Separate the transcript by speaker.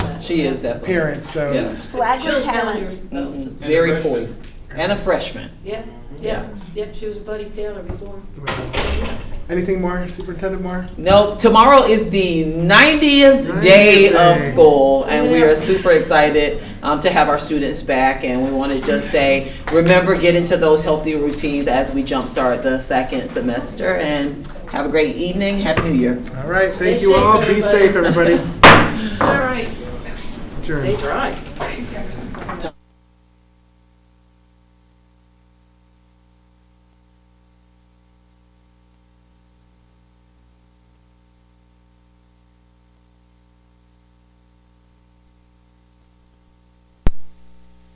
Speaker 1: She is definitely. Mm-hmm.
Speaker 2: parent, so.
Speaker 1: Yeah.
Speaker 3: Flash of
Speaker 4: Shows
Speaker 3: talent.
Speaker 1: No,
Speaker 4: Taylor.
Speaker 1: Very
Speaker 5: freshman.
Speaker 1: poised. And a freshman.
Speaker 4: Yep, yep, yep, she was Buddy Taylor before.
Speaker 2: Anything more, Superintendent Moore?
Speaker 1: No, tomorrow is the 90th, day
Speaker 2: 90th
Speaker 1: of
Speaker 2: day.
Speaker 1: school, and we
Speaker 4: Yeah.
Speaker 1: are super excited um, to have our students back. And we want to just say, remember, get into those healthy routines as we jumpstart the second semester. And have a great evening. Happy New Year.
Speaker 2: All right,
Speaker 4: Stay
Speaker 2: thank you
Speaker 4: safe,
Speaker 2: all. Be
Speaker 4: everybody.
Speaker 2: safe, everybody.
Speaker 4: All right,
Speaker 2: Adjourned.
Speaker 4: they dry.